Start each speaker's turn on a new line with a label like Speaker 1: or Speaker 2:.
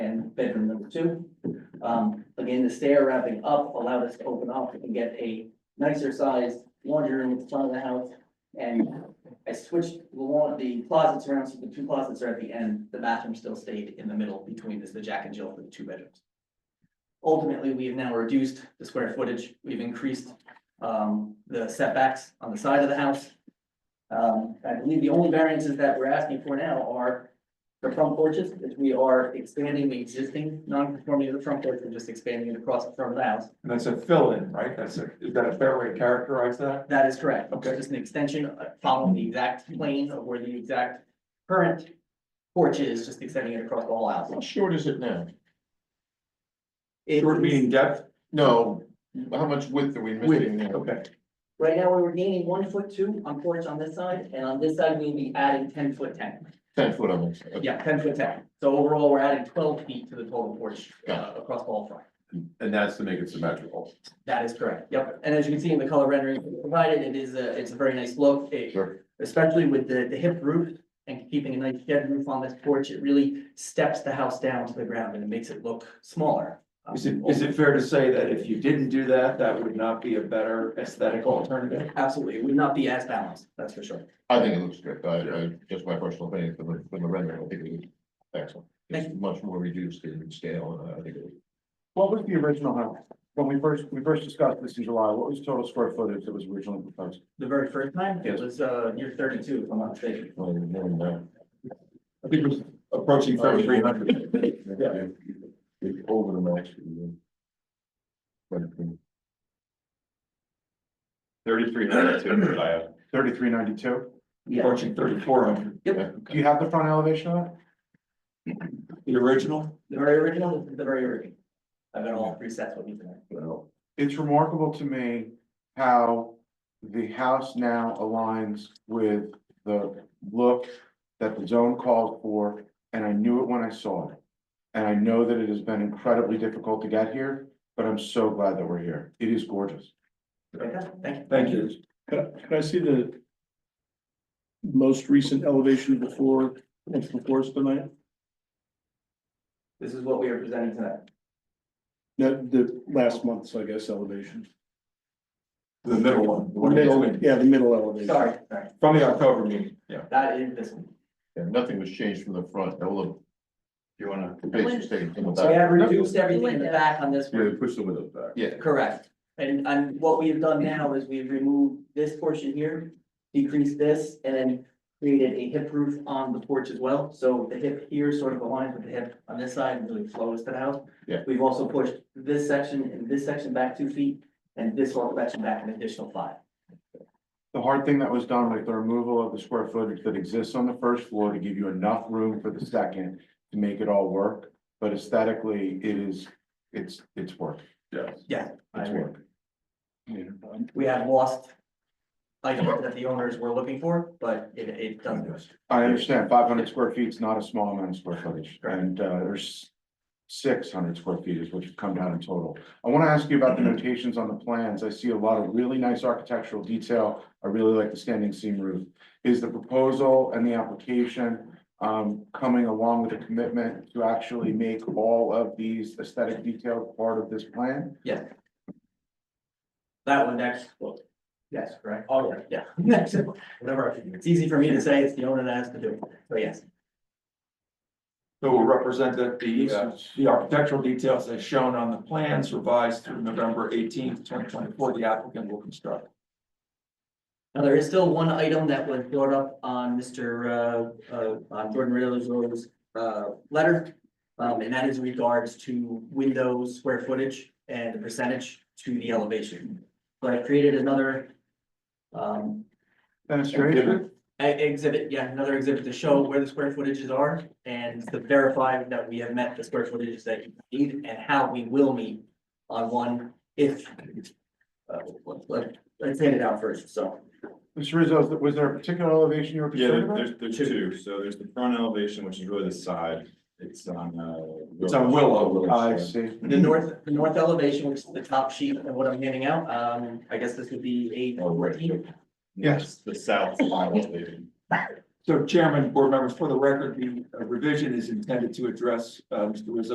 Speaker 1: bedroom number two. Um, again, the stair wrapping up allowed us to open up and get a nicer sized laundry room at the front of the house. And I switched the lawn, the closets around, so the two closets are at the end, the bathroom still stayed in the middle between this, the Jack and Jill for the two bedrooms. Ultimately, we have now reduced the square footage, we've increased um the setbacks on the side of the house. Um, I believe the only variances that we're asking for now are the front porches, if we are expanding the existing non-conformity of the front porch, we're just expanding it across the front of the house.
Speaker 2: And that's a fill-in, right? That's a, is that a fair way to characterize that?
Speaker 1: That is correct.
Speaker 2: Okay.
Speaker 1: It's just an extension, uh, following the exact plane of where the exact current porch is, just extending it across the whole house.
Speaker 3: How short is it now?
Speaker 1: It
Speaker 2: Short
Speaker 1: is-
Speaker 2: meaning depth?
Speaker 3: No, how much width are we missing
Speaker 2: Width,
Speaker 3: now?
Speaker 2: okay.
Speaker 1: Right now, we were gaining one foot two on porch on this side, and on this side, we'll be adding ten foot ten.
Speaker 3: Ten foot on this. okay.
Speaker 1: Yeah, ten foot ten. So overall, we're adding twelve feet to the total porch, uh, across the whole front.
Speaker 4: And that's to make it symmetrical.
Speaker 1: That is correct, yep. And as you can see in the color rendering provided, it is a, it's a very nice look. It-
Speaker 3: Sure.
Speaker 1: Especially with the, the hip roof and keeping a nice shed roof on this porch, it really steps the house down to the ground and it makes it look smaller. Um,
Speaker 2: Is it, is it fair to say that if you didn't do that, that would not be a better aesthetic alternative?
Speaker 1: Absolutely, it would not be as balanced, that's for sure.
Speaker 3: I think it looks good. I, I, just my personal opinion from the, from the rendering, I think it looks excellent. It's much more reduced in scale, and I think it
Speaker 5: What was the original house? When we first, we first discussed this in July, what was total square footage that was originally proposed?
Speaker 1: The very first time, it
Speaker 5: Yes.
Speaker 1: was, uh, near thirty-two, if I'm not mistaken.
Speaker 3: was.
Speaker 2: I think it was approaching thirty-three hundred.
Speaker 3: Yeah. It's over the max. But, um,
Speaker 4: Thirty-three hundred two, Josiah.
Speaker 5: Thirty-three ninety-two?
Speaker 1: Yeah,
Speaker 2: approaching thirty-four hundred.
Speaker 3: yeah,
Speaker 5: Do you have the front elevation of
Speaker 2: The original?
Speaker 1: the very original, the very original. I've got all three sets with me tonight.
Speaker 3: well,
Speaker 5: it? It's remarkable to me how the house now aligns with the look that the zone called for, and I knew it when I saw it. And I know that it has been incredibly difficult to get here, but I'm so glad that we're here. It is gorgeous.
Speaker 1: Okay, thank you.
Speaker 2: Thank you.
Speaker 6: Can I- can I see the most recent elevation before, what's before us tonight?
Speaker 1: This is what we are presenting tonight.
Speaker 6: No, the last month's, I guess, elevation.
Speaker 2: The middle one. the one that's
Speaker 6: Middle,
Speaker 2: open.
Speaker 6: yeah, the middle elevation.
Speaker 1: Sorry, sorry,
Speaker 2: From the October meeting, yeah.
Speaker 1: that is this one.
Speaker 3: yeah, nothing was changed from the front, all of
Speaker 4: You wanna?
Speaker 3: the basic thing from the
Speaker 1: We
Speaker 3: back.
Speaker 1: have reduced everything in the back on this
Speaker 4: Yeah,
Speaker 1: one,
Speaker 4: push the windows back.
Speaker 3: Yeah,
Speaker 1: correct. And, and what we have done now is we've removed this portion here, decreased this, and then created a hip roof on the porch as well. So the hip here sort of aligns with the hip on this side and really flows to the house.
Speaker 3: Yeah.
Speaker 1: We've also pushed this section and this section back two feet, and this whole section back an additional five.
Speaker 5: The hard thing that was done was the removal of the square footage that exists on the first floor to give you enough room for the second to make it all work. But aesthetically, it is, it's, it's work.
Speaker 4: Yes.
Speaker 5: It's work.
Speaker 1: We have lost items that the owners were looking for, but it, it doesn't.
Speaker 5: I understand five hundred square feet is not a small amount of square footage and uh, there's six hundred square feet is what you've come down in total. I want to ask you about the notations on the plans. I see a lot of really nice architectural detail. I really like the standing seam roof. Is the proposal and the application um, coming along with a commitment to actually make all of these aesthetic details part of this plan?
Speaker 1: That one next, well, yes, correct, all right, yeah, next, whatever, I can do. it's easy for me to say, it's the owner that has to do it, so yes,
Speaker 2: So we'll represent that the, uh, the architectural details as shown on the plans revised through November eighteenth, twenty twenty-four, the applicant will construct.
Speaker 1: now there is still one item that was brought up on Mr. Uh, uh, on Jordan Riddler's, uh, letter. Um, and that is regards to windows, square footage, and the percentage to the elevation, but I created another. Um,
Speaker 5: Demonstration?
Speaker 1: E- Exhibit, yeah, another exhibit to show where the square footages are and to verify that we have met the square footages that you need and how we will meet on one if. Uh, let- let- Let's hand it out first, so.
Speaker 5: Mr. Rizzo, was there a particular elevation you were
Speaker 7: Yeah,
Speaker 5: concerned
Speaker 7: there-
Speaker 5: about?
Speaker 7: there's, there's
Speaker 1: Two.
Speaker 7: two, so there's the front elevation, which is really the side, it's on, uh.
Speaker 2: It's on Willow.
Speaker 5: I see.
Speaker 1: The north, the north elevation, which is the top sheet of what I'm handing out, um, I guess this would be eight
Speaker 7: Oh, right.
Speaker 1: fourteen.
Speaker 5: Yes.
Speaker 7: The south side elevation.
Speaker 2: So Chairman, board members, for the record, the uh, revision is intended to address, uh, Mr. Rizzo's